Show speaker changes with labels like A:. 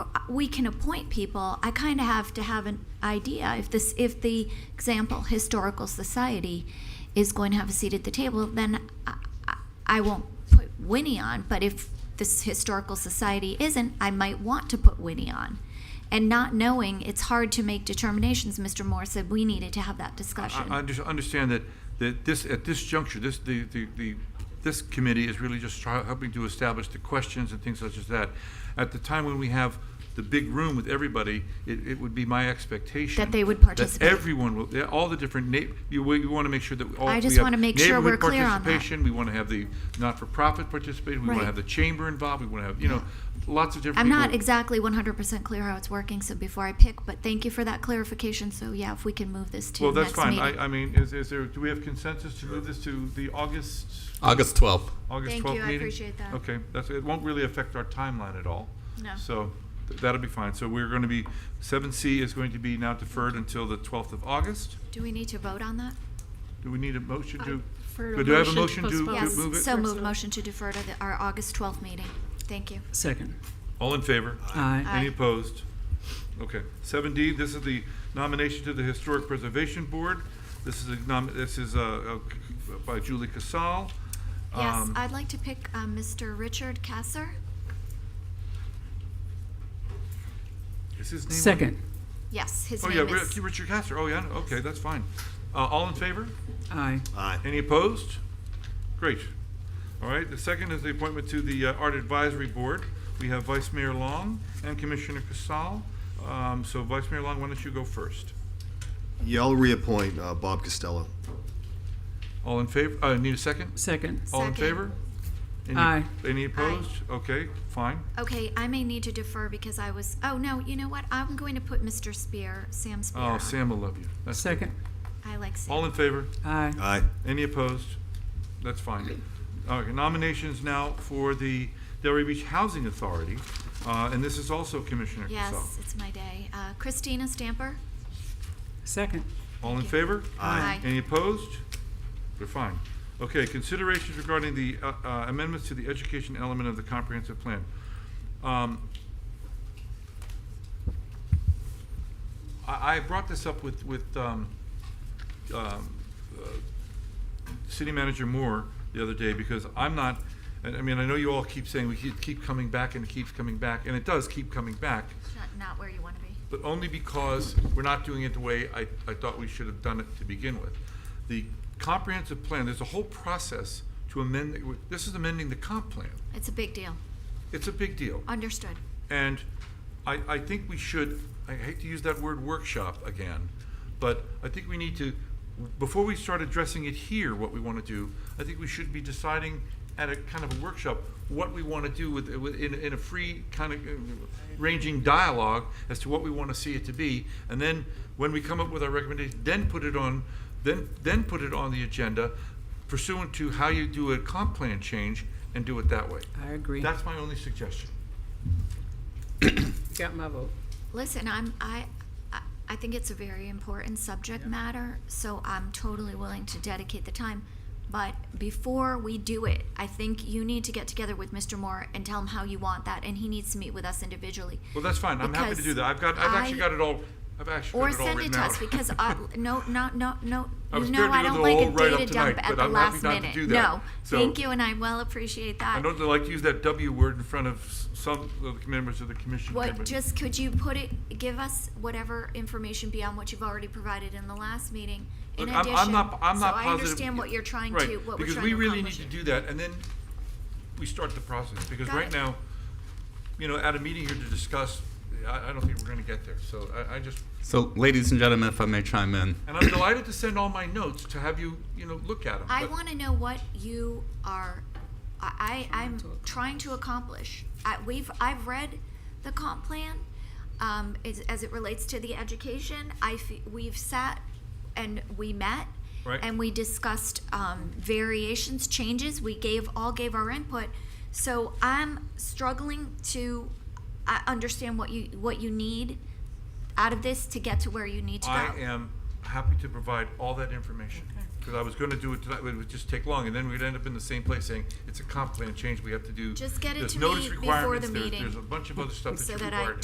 A: we can appoint people, I kind of have to have an idea if this, if the example historical society is going to have a seat at the table, then I, I- I won't put Winnie on. But if this historical society isn't, I might want to put Winnie on. And not knowing, it's hard to make determinations. Mr. Moore said we needed to have that discussion.
B: I, I under- understand that, that this, at this juncture, this, the, the, the, this committee is really just try, helping to establish the questions and things such as that. At the time when we have the big room with everybody, it, it would be my expectation.
A: That they would participate.
B: That everyone will, yeah, all the different na, you, we want to make sure that all.
A: I
B: we
A: just
B: have
A: wanna make sure
B: neighborhood
A: we're clear on that.
B: participation, We want to have the not-for-profit participation, we want
A: Right.
B: to have the chamber involved, we want to have, you know, lots of different
A: I'm
B: people.
A: not exactly 100% clear how it's working, so before I pick, but thank you for that clarification. So yeah, if we can move this to
B: Well,
A: next
B: that's
A: meeting.
B: fine. I, I mean, is, is there, do we have consensus to move this to the August?
C: August 12th.
B: August
A: Thank
B: 12th meeting?
A: you, I appreciate that.
B: Okay, that's, it won't really affect our timeline at all.
A: No.
B: So th- that'll be fine. So we're going to be, 7C is going to be now deferred until the 12th of August.
A: Do we need to vote on that?
B: Do we need a motion to?
A: Uh,
D: prefer a
B: but Do I have a
D: motion
B: motion
D: to
B: to
D: postpone.
B: to
A: Yes,
B: move it?
A: so move
D: Personal.
A: motion to defer to the- our August 12th meeting. Thank you.
E: Second.
B: All in favor?
E: Aye.
B: Any
A: Aye.
B: opposed? Okay. Seven D, this is the nomination to the Historic Preservation Board. This is a nom, this is, uh, uh, by Julie Casal.
A: Yes,
B: Um,
A: I'd like to pick uh, Mr. Richard Kasser.
B: Is his name? on-
E: Second.
A: Yes, his
B: Oh, yeah,
A: name
B: Ri-
A: is.
B: Richard Castor. Oh, yeah, okay, that's fine. Uh, all in favor?
E: Aye.
B: Any opposed? Great. All right, the second is the appointment to the uh, Art Advisory Board. We have Vice Mayor Long and Commissioner Casal. Um, so Vice Mayor Long, why don't you go first?
F: Yeah, I'll reappoint uh, Bob Costello.
B: All in favor, uh, need a second?
E: Second.
B: All
A: Second.
B: in favor? Any-
E: Aye.
B: Any opposed? Okay, fine.
A: Okay, I may need to defer because I was, oh, no, you know what? I'm going to put Mr. Spear, Sam Spear
B: Oh,
A: on.
B: Sam will love you. That's good.
E: Second.
A: I like Sam.
B: All in favor?
E: Aye.
F: Aye.
B: Any opposed? That's fine. Okay, nominations now for the Delray Beach Housing Authority, uh, and this is also Commissioner Casal.
A: Yes, it's my day. Uh, Christina Stamper?
E: Second.
B: All in favor?
A: Aye. Aye.
B: Any opposed? They're fine. Okay, considerations regarding the uh, uh, amendments to the education element of the comprehensive plan. Um, I, I brought this up with, with, um, um, uh, City Manager Moore the other day, because I'm not, and I mean, I know you all keep saying we keep, keep coming back and it keeps coming back, and it does keep coming back
A: It's not- Not where you want to be.
B: but only because we're not doing it the way I, I thought we should have done it to begin with. The comprehensive plan, there's a whole process to amend, this is amending the comp plan.
A: It's a big deal.
B: It's a big deal.
A: Understood.
B: And I, I think we should, I hate to use that word workshop again, but I think we need to, before we start addressing it here, what we want to do, I think we should be deciding at a kind of a workshop, what we want to do with, with, in, in a free kind of uh, ranging dialogue as to what we want to see it to be. And then when we come up with our recommendation, then put it on, then, then put it on the agenda pursuant to how you do a comp plan change and do it that way.
E: I agree.
B: That's my only suggestion.
E: Got my vote.
A: Listen, I'm, I, I- I think it's a very important subject matter, so I'm totally willing to dedicate the time. But before we do it, I think you need to get together with Mr. Moore and tell him how you want that, and he needs to meet with us individually.
B: Well, that's fine. I'm happy to
A: Because
B: do that. I've got, I've actually
A: I-
B: got it all, I've actually
A: Or
B: got it all
A: send it
B: written
A: to
B: out.
A: us, because, I- no, no, no, no,
B: I
A: you
B: was
A: know
B: prepared to
A: I don't
B: go the
A: like a
B: whole write-up
A: data dump
B: tonight,
A: at
B: but
A: the
B: I'm happy
A: last
B: not to
A: minute.
B: do that.
A: No,
B: So-
A: thank you, and I well appreciate that.
B: I don't like to use that W word in front of s- some of the members of the commission. here,
A: What,
B: but-
A: just, could you put it, give us whatever information beyond what you've already provided in the last meeting? In
B: Look,
A: addition,
B: I'm-
A: so
B: I'm not, I'm not positive.
A: I understand what you're trying
B: Right,
A: to, what we're trying to accomplish.
B: Because we really need to do that, and then we start the process, because
A: Got
B: right
A: it.
B: now, you know, at a meeting here to discuss, I, I don't think we're gonna get there, so I, I just,
C: So, ladies and gentlemen, if I may chime in,
B: and I'm delighted to send all my notes to have you, you know, look at them.
A: I want to know what you are, I, I- I'm trying to accomplish. I, we've, I've read the comp plan, um, as, as it relates to the education. I, fe- we've sat and we met.
B: Right.
A: And we discussed, um, variations, changes. We gave, all gave our input. So I'm struggling to, I understand what you, what you need out of this to get to where you need to go.
B: I am happy to provide all that information, because I was gonna do it tonight, but it would just take long, and then we'd end up in the same place saying, it's a comp plan change, we have to do.
A: Just get it
B: there's
A: to
B: notice
A: me before the
B: requirements, there's-
A: meeting,
B: There's a bunch of other stuff that
A: so
B: you
A: that I
B: require.